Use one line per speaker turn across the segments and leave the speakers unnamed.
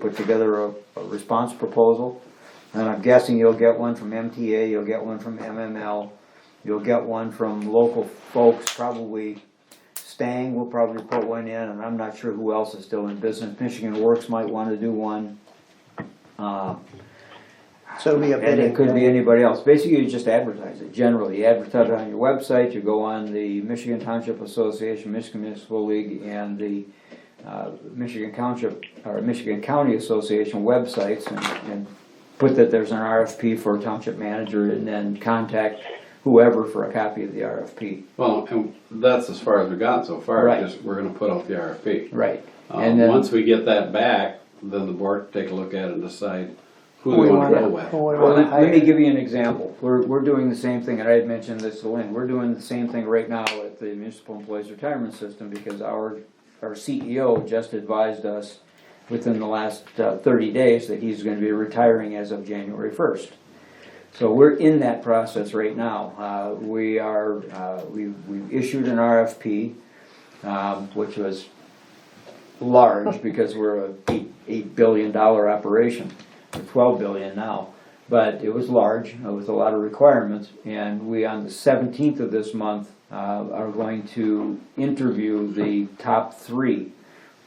put together a, a response proposal. And I'm guessing you'll get one from MTA, you'll get one from MML, you'll get one from local folks, probably Stang will probably put one in, and I'm not sure who else is still in business. Michigan Works might wanna do one. Uh,
So it'll be a
and
bidding.
it could be anybody else. Basically, you just advertise it generally. You advertise it on your website, you go on the Michigan Township Association, Michigan Municipal League, and the uh, Michigan Township, or Michigan County Association websites and, and put that there's an RFP for a township manager and then contact whoever for a copy of the RFP.
Well, and that's as far as we've gotten so far,
Right.
just, we're gonna put out the RFP.
Right.
Um,
And then,
once we get that back, then the board can take a look at it and decide who
Who
they
we
wanna
wanna,
go
who
with.
we
well,
wanna
let let me
hire.
give you an example. We're, we're doing the same thing, and I had mentioned this to Lynn, we're doing the same thing right now at the Municipal Employees Retirement System because our, our CEO just advised us within the last uh, thirty days that he's gonna be retiring as of January first. So we're in that process right now. Uh, We are, uh, we've we've issued an RFP, um, which was large because we're a eight- eight billion dollar operation, or twelve billion now. But it was large, uh, with a lot of requirements, and we, on the seventeenth of this month, uh, are going to interview the top three.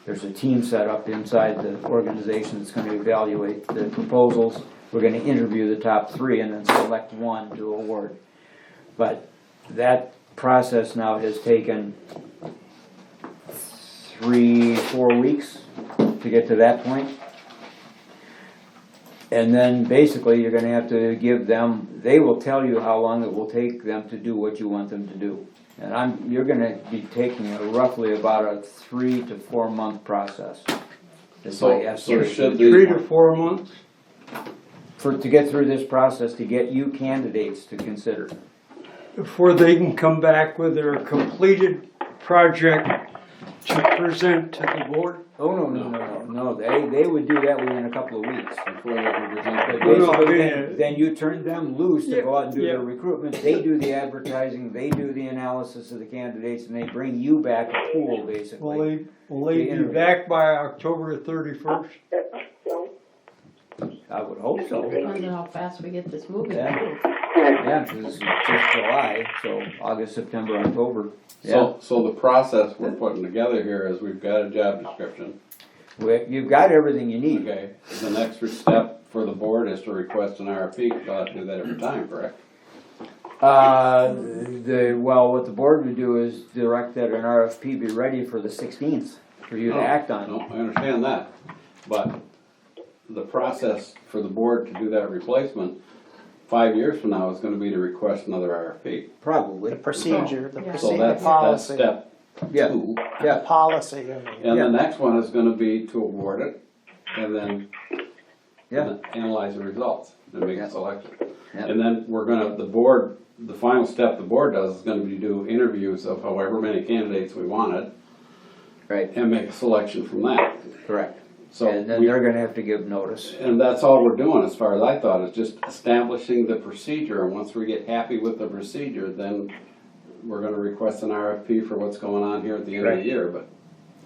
There's a team set up inside the organization that's gonna evaluate the proposals. We're gonna interview the top three and then select one to award. But that process now has taken three, four weeks to get to that point. And then basically, you're gonna have to give them, they will tell you how long it will take them to do what you want them to do. And I'm, you're gonna be taking a roughly about a three to four month process. That's my
So, so
estimation.
should
Three
the,
to four months?
For, to get through this process, to get you candidates to consider.
Before they can come back with their completed project to present to the board?
Oh, no, no, no, no, no, they, they would do that within a couple of weeks.
before they can present
But
their-
No, no, I
basically,
mean,
then-
uh,
then you turn them loose to go out and do their
Yeah, yeah.
recruitment, they do the advertising, they do the analysis of the candidates, and they bring you back a pool,
Will
basically.
they, will they be
interview.
back by October thirty-first?
I would hope so,
Depends on how fast we get this moving.
Yeah.
too.
yeah, 'cause it's just July, so August, September, October, yeah.
So, so the process we're putting together here is we've got a job description,
We- You've got everything you need,
okay? The next step for the board is to request an RFP, because I do that every time, correct?
uh, the, well, what the board would do is direct that an RFP be ready for the sixteenth, for you to
No,
act on.
No, I understand that, but the process for the board to do that replacement, five years from now, is gonna be to request another RFP.
Probably,
The procedure, the
Yeah.
So
procedure, the
that's, that's
policy, the
step
yeah,
two.
yeah,
policy. of it.
And
Yeah.
the next one is gonna be to award it, and then
yeah,
analyze the results, and make
Yeah.
a selection.
Yeah.
And then we're gonna, the board, the final step the board does is gonna be do interviews of however many candidates we wanted,
right,
and make a selection from that.
correct.
So
And then
we-
they're gonna have to give notice.
And that's all we're doing, as far as I thought, is just establishing the procedure, and once we get happy with the procedure, then we're gonna request an RFP for what's going on here at the end of the
Right.
year, but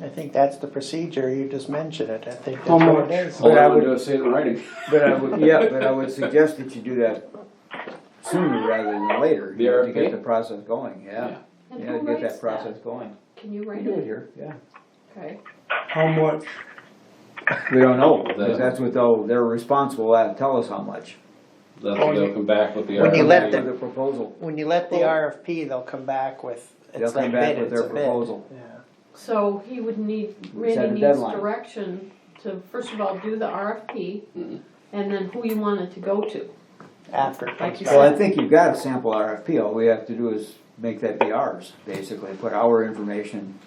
I think that's the procedure, you just mentioned it, I think that's
How
what
much?
it is.
all
But I
I wanna
would-
do is see it in writing.
But I would, yeah, but I would suggest that you do that sooner rather than later.
The
To
RFP?
get the process going, yeah.
And
Yeah,
who
get
writes
that process going.
Can you write it?
here, yeah.
Okay.
How much?
We don't know, 'cause
The-
that's what they'll, they're responsible, uh, tell us how much.
That's when they'll come back with the
When you let
RFP.
them-
The proposal,
When you let the RFP, they'll come back with,
They'll
it's
come
like
back
bid,
with
it's
their
a bid.
proposal.
Yeah.
So he would need,
Set a
Randy needs
deadline.
direction to, first of all, do the RFP,
Mm-hmm.
Mhm.
and then who you want it to go to.
After it comes
you
back.
Well, I think you've got a sample RFP, all we have to do is make that be ours, basically, put our information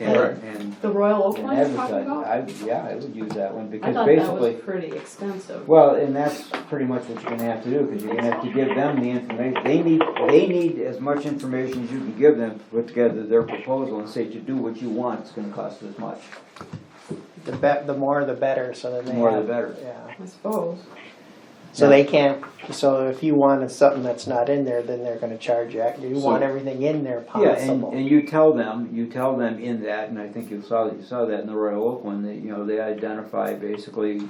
in
Right.
and,
The Royal Oak
and
one you're talking
advertise.
about?
I, yeah, I would use that one,
I
because
thought that
basically,
was pretty extensive.
Well, and that's pretty much what you're gonna have to do, because you're gonna have to give them the information, they need, they need as much information as you can give them to put together their proposal and say to do what you want, it's gonna cost this much.
The be, the more the better, so then they have.
More the better.
Yeah,
I suppose.
so they can't, so if you wanted something that's not in there, then they're gonna charge you, you
So-
want everything in there
Yeah, and,
possible.
and you tell them, you tell them in that, and I think you saw, you saw that in the Royal Oak one, that, you know, they identify basically